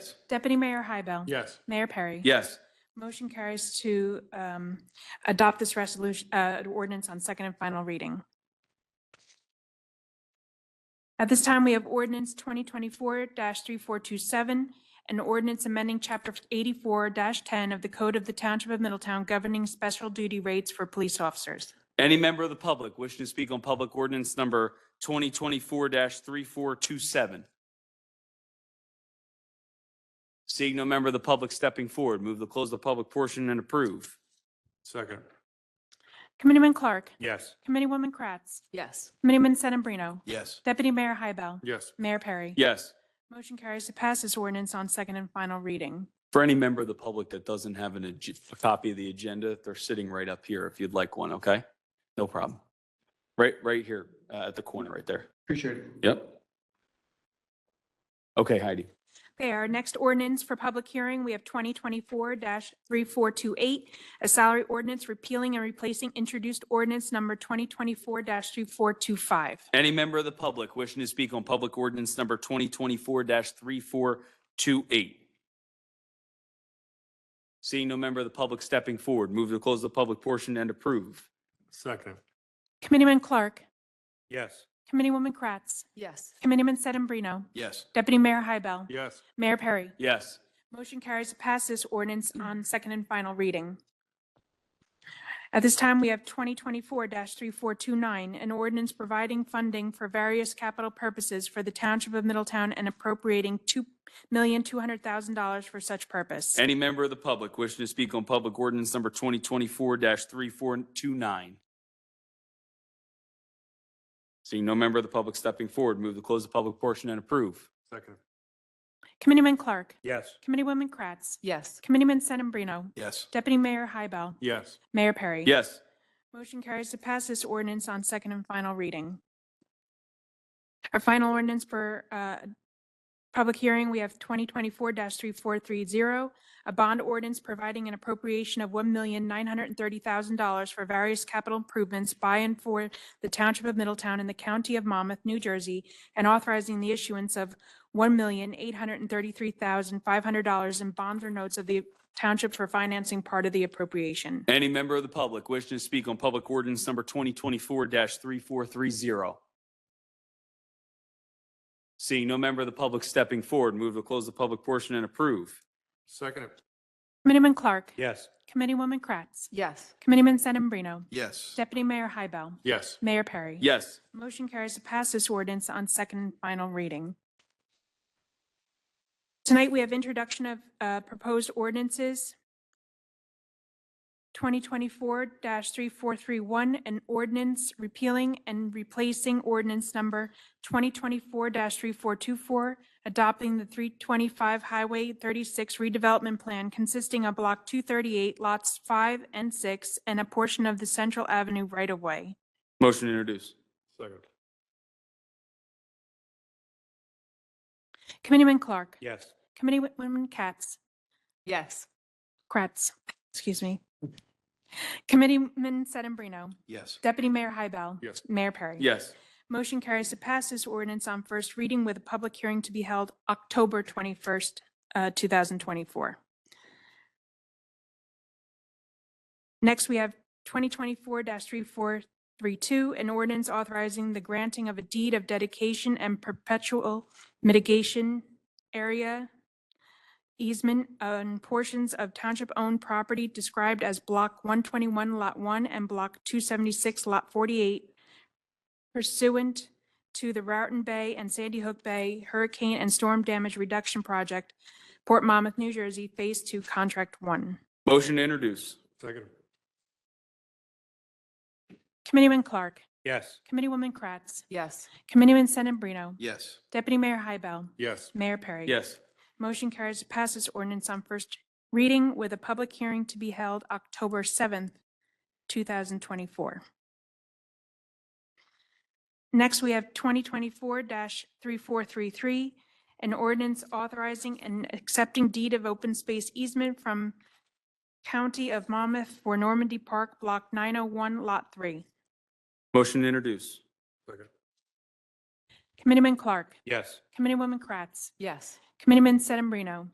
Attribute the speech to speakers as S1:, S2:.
S1: Deputy Mayor Hybel.
S2: Yes.
S1: Mayor Perry.
S3: Yes.
S1: Motion carries to um, adopt this resolution, uh, ordinance on second and final reading. At this time, we have ordinance 2024-3427, an ordinance amending Chapter 84-10 of the Code of the Township of Middletown governing special duty rates for police officers.
S3: Any member of the public wishing to speak on public ordinance number 2024-3427? Seeing no member of the public stepping forward, move to close the public portion and approve.
S2: Second.
S1: Committeeman Clark.
S2: Yes.
S1: Committeewoman Kratz.
S4: yes,
S1: Committeeman Sedambrino.
S2: Yes.
S1: Deputy Mayor Hybel.
S2: Yes.
S1: Mayor Perry.
S3: Yes.
S1: Motion carries to pass this ordinance on second and final reading.
S3: For any member of the public that doesn't have an, ag- a copy of the agenda, they're sitting right up here if you'd like one, okay? No problem. Right, right here, uh, at the corner right there.
S5: Appreciate it.
S3: Yep. Okay, Heidi.
S1: Okay, our next ordinance for public hearing, we have 2024-3428, a salary ordinance repealing and replacing introduced ordinance number 2024-3425.
S3: Any member of the public wishing to speak on public ordinance number 2024-3428? Seeing no member of the public stepping forward, move to close the public portion and approve.
S2: Second.
S1: Committeeman Clark,
S2: Yes.
S1: Committeewoman Kratz,
S4: yes,
S1: Committeeman Sedambrino,
S2: Yes.
S1: Deputy Mayor Hybel,
S2: Yes.
S1: Mayor Perry.
S3: Yes.
S1: Motion carries to pass this ordinance on second and final reading. At this time, we have 2024-3429, an ordinance providing funding for various capital purposes for the Township of Middletown and appropriating $2,200,000 for such purpose.
S3: Any member of the public wishing to speak on public ordinance number 2024-3429? Seeing no member of the public stepping forward, move to close the public portion and approve.
S2: Second.
S1: Committeeman Clark,
S2: Yes.
S1: Committeewoman Kratz,
S4: yes,
S1: Committeeman Sedambrino,
S2: Yes.
S1: Deputy Mayor Hybel,
S2: Yes.
S1: Mayor Perry.
S3: Yes.
S1: Motion carries to pass this ordinance on second and final reading. Our final ordinance for uh, public hearing, we have 2024-3430, a bond ordinance providing an appropriation of $1,930,000 for various capital improvements by and for the Township of Middletown in the County of Monmouth, New Jersey, and authorizing the issuance of $1,833,500 in bonds or notes of the township for financing part of the appropriation.
S3: Any member of the public wishing to speak on public ordinance number 2024-3430? Seeing no member of the public stepping forward, move to close the public portion and approve.
S2: Second.
S1: Committeeman Clark.
S2: Yes.
S1: Committeewoman Kratz.
S4: yes,
S1: Committeeman Sedambrino.
S2: Yes.
S1: Deputy Mayor Hybel.
S2: Yes.
S1: Mayor Perry.
S3: Yes.
S1: Motion carries to pass this ordinance on second and final reading. Tonight, we have introduction of uh, proposed ordinances. 2024-3431, an ordinance repealing and replacing ordinance number 2024-3424, adopting the 325 Highway 36 redevelopment plan consisting of Block 238, lots 5 and 6, and a portion of the Central Avenue right-of-way.
S3: Motion to introduce.
S2: Second.
S1: Committeeman Clark.
S2: Yes.
S1: Committeewoman Katz,
S4: yes,
S1: Kratz, excuse me. Committeeman Sedambrino,
S2: Yes.
S1: Deputy Mayor Hybel.
S2: Yes.
S1: Mayor Perry.
S3: Yes.
S1: Motion carries to pass this ordinance on first reading with a public hearing to be held October 21st, uh, 2024. Next, we have 2024-3432, an ordinance authorizing the granting of a deed of dedication and perpetual mitigation area easement on portions of township-owned property described as Block 121, Lot 1, and Block 276, Lot 48, pursuant to the Raritan Bay and Sandy Hook Bay Hurricane and Storm Damage Reduction Project, Port Monmouth, New Jersey, Phase Two, Contract One.
S3: Motion to introduce.
S2: Second.
S1: Committeeman Clark,
S2: Yes.
S1: Committeewoman Kratz,
S4: yes,
S1: Committeeman Sedambrino,
S2: Yes.
S1: Deputy Mayor Hybel,
S2: Yes.
S1: Mayor Perry.
S3: Yes.
S1: Motion carries to pass this ordinance on first reading with a public hearing to be held October 7th, 2024. Next, we have 2024-3433, an ordinance authorizing and accepting deed of open space easement from County of Monmouth for Normandy Park, Block 901, Lot 3.
S3: Motion to introduce.
S2: Second.
S1: Committeeman Clark,
S2: Yes.
S1: Committeewoman Kratz,
S4: yes.
S1: Committeeman Sedambrino,